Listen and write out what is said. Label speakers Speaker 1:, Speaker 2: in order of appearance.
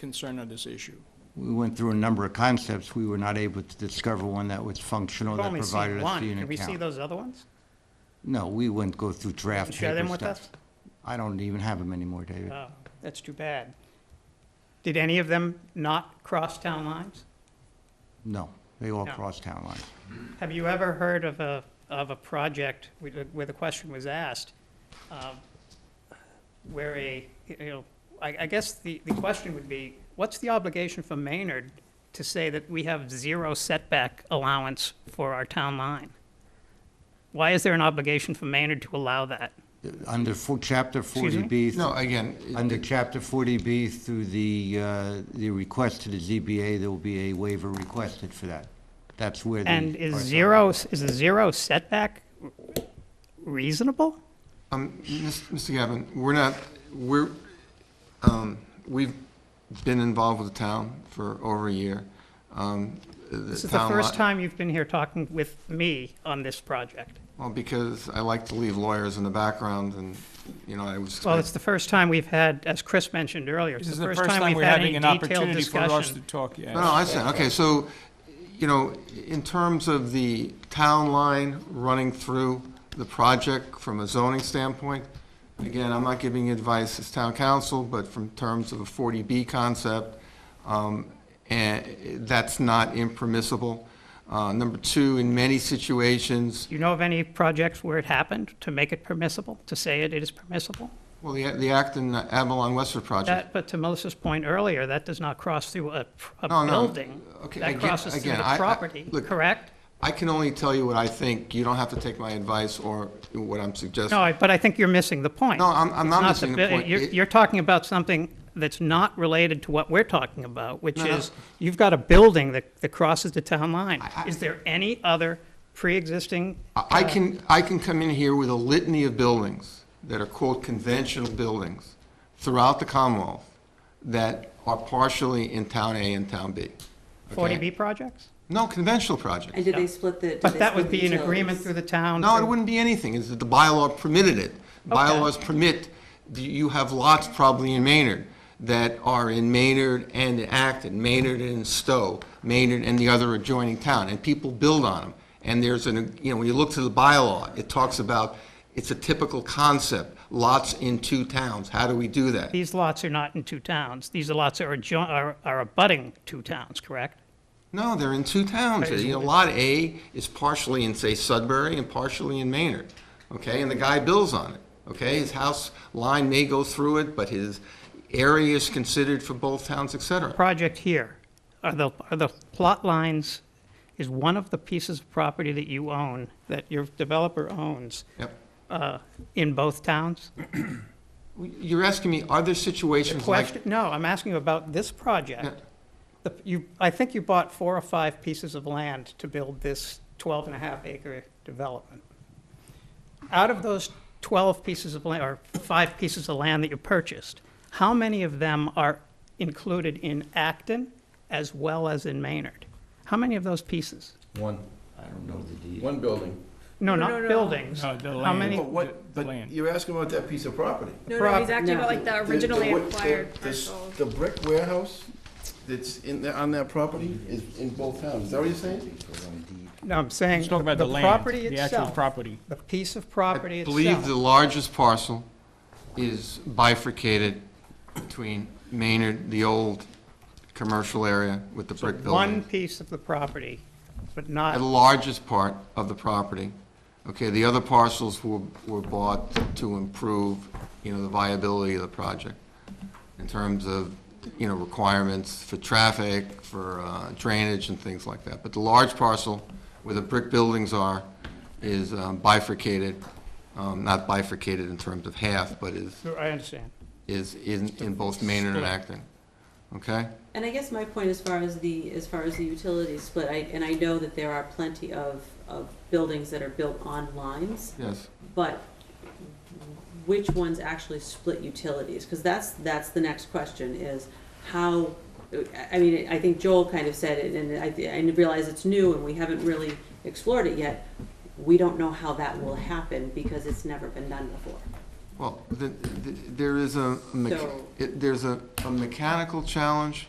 Speaker 1: concern on this issue.
Speaker 2: We went through a number of concepts. We were not able to discover one that was functional,
Speaker 3: We've
Speaker 2: that
Speaker 3: only seen
Speaker 2: provided us
Speaker 3: one.
Speaker 2: the
Speaker 3: Can
Speaker 2: unit
Speaker 3: we see
Speaker 2: count.
Speaker 3: those other ones?
Speaker 2: No, we wouldn't go through draft
Speaker 3: Share them
Speaker 2: paper
Speaker 3: with us?
Speaker 2: stuff. I don't even have them anymore, David.
Speaker 3: Oh, that's too bad. Did any of them not cross town lines?
Speaker 2: No, they all
Speaker 3: No.
Speaker 2: cross town lines.
Speaker 3: Have you ever heard of a, of a project with- where the question was asked, um, where a, you know, I, I guess the, the question would be, what's the obligation for Maynard to say that we have zero setback allowance for our town line? Why is there an obligation for Maynard to allow that?
Speaker 2: Under full chapter
Speaker 3: Excuse me?
Speaker 2: 40B.
Speaker 4: No, again, it-
Speaker 2: Under chapter 40B through the, uh, the request to the ZBA, there will be a waiver requested for that. That's where the.
Speaker 3: And is
Speaker 2: parcel-
Speaker 3: zero, is a zero setback reasonable?
Speaker 4: um, Mis- Mr. Gavin, we're not, we're, um, we've been involved with the town for over a year. Um,
Speaker 3: This is the first time you've been here talking with me on this project.
Speaker 4: Well, because I like to leave lawyers in the background and, you know, I was.
Speaker 3: Well, it's the first time we've had, as Chris mentioned earlier, it's
Speaker 1: This is the first time
Speaker 3: we've
Speaker 1: we're
Speaker 3: had
Speaker 1: having
Speaker 3: any
Speaker 1: an
Speaker 3: detailed
Speaker 1: opportunity for us to
Speaker 3: discussion.
Speaker 1: talk, yes.
Speaker 4: No, no, I understand. Okay, so, you know, in terms of the town line running through the project from a zoning standpoint, again, I'm not giving you advice as town council, but from terms of a 40B concept, um, and that's not impermissible. Uh, Number two, in many situations,
Speaker 3: Do you know of any projects where it happened to make it permissible, to say it is permissible?
Speaker 4: well, the the Acton Avalon Westford project.
Speaker 3: That, but to Melissa's point earlier, that does not cross through a, a
Speaker 4: No, no.
Speaker 3: building.
Speaker 4: Okay,
Speaker 3: That
Speaker 4: again-
Speaker 3: crosses through
Speaker 4: again,
Speaker 3: the
Speaker 4: I- I-
Speaker 3: property,
Speaker 4: look,
Speaker 3: correct?
Speaker 4: I can only tell you what I think. You don't have to take my advice or what I'm suggesting.
Speaker 3: No, I- but I think you're missing the point.
Speaker 4: No, I'm- I'm
Speaker 3: It's
Speaker 4: not
Speaker 3: the
Speaker 4: missing the
Speaker 3: bi-
Speaker 4: point.
Speaker 3: You're,
Speaker 4: It-
Speaker 3: you're talking about something that's not related to what we're talking about, which
Speaker 4: No, no.
Speaker 3: is, you've got a building that, that crosses the town line.
Speaker 4: I- I-
Speaker 3: Is there any other pre-existing?
Speaker 4: I I can, I can come in here with a litany of buildings that are quote conventional buildings throughout the Commonwealth that are partially in Town A and Town B.
Speaker 3: Forty
Speaker 4: okay?
Speaker 3: B projects?
Speaker 4: No, conventional projects.
Speaker 5: And did they split the? did
Speaker 3: But
Speaker 5: they
Speaker 3: that would
Speaker 5: split
Speaker 3: be
Speaker 5: the
Speaker 3: an agreement through
Speaker 5: utilities?
Speaker 3: the town.
Speaker 4: No, it
Speaker 3: through-
Speaker 4: wouldn't be anything, is that the bylaw permitted it. Bylaws permit, you have lots probably in Maynard that are in Maynard and in Acton, Maynard and in Stowe, Maynard and the other adjoining town, and people build on them. And there's an, you know, when you look to the bylaw, it talks about, it's a typical concept, lots in two towns, how do we do that?
Speaker 3: These lots are not in two towns. These lots are adjo, are, are abutting two towns, correct?
Speaker 4: No, they're in two towns. You know, Lot A is partially in, say, Sudbury and partially in Maynard, okay? And the guy builds on it, okay? His house line may go through it, but his area is considered for both towns, et cetera.
Speaker 3: Project here, are the, are the plot lines, is one of the pieces of property that you own, that your developer owns,
Speaker 4: Yep.
Speaker 3: uh, in both towns?
Speaker 4: You're asking me, are there situations like?
Speaker 3: Question, no, I'm asking you about this
Speaker 4: Yeah.
Speaker 3: project. The- You, I think you bought four or five pieces of land to build this 12 and a half acre development. Out of those 12 pieces of land, or five pieces of land that you purchased, how many of them are included in Acton as well as in Maynard? How many of those pieces?
Speaker 6: One,
Speaker 2: I don't know the deed.
Speaker 6: one building.
Speaker 3: No,
Speaker 7: No,
Speaker 3: not
Speaker 7: no, no.
Speaker 3: buildings.
Speaker 1: No, the
Speaker 3: How
Speaker 1: land.
Speaker 3: many?
Speaker 6: But what,
Speaker 1: The
Speaker 6: but
Speaker 1: land.
Speaker 6: you're asking about that piece of property.
Speaker 7: No, no, he's
Speaker 3: Prop-
Speaker 7: acting
Speaker 5: no.
Speaker 7: about like the
Speaker 6: The- the
Speaker 7: originally
Speaker 6: wood- the-
Speaker 7: acquired
Speaker 6: the s-
Speaker 7: parcel.
Speaker 6: The brick warehouse that's in, the- on that property is in both towns, is that what you're saying?
Speaker 3: No, I'm saying,
Speaker 1: Let's talk about the
Speaker 3: the
Speaker 1: land,
Speaker 3: property
Speaker 1: the actual
Speaker 3: itself,
Speaker 1: property.
Speaker 3: the piece of
Speaker 4: I
Speaker 3: property
Speaker 4: believe the
Speaker 3: itself.
Speaker 4: largest parcel is bifurcated between Maynard, the old commercial area with the brick building.
Speaker 3: One piece of the property, but not.
Speaker 4: the largest part of the property. Okay, the other parcels were, were bought to improve, you know, the viability of the project in terms of, you know, requirements for traffic, for uh, drainage and things like that. But the large parcel where the brick buildings are is um, bifurcated, um, not bifurcated in terms of half, but is,
Speaker 3: I understand.
Speaker 4: is in, in both Maynard and Acton. Okay?
Speaker 5: And I guess my point as far as the, as far as the utility split, I, and I know that there are plenty of, of buildings that are built on lines,
Speaker 4: Yes.
Speaker 5: but which ones actually split utilities? Because that's, that's the next question is how, I- I mean, I think Joel kind of said it, and I, I realize it's new and we haven't really explored it yet. We don't know how that will happen because it's never been done before.
Speaker 4: Well, the- the- there is a, mecha-
Speaker 5: So-
Speaker 4: it- there's a a mechanical challenge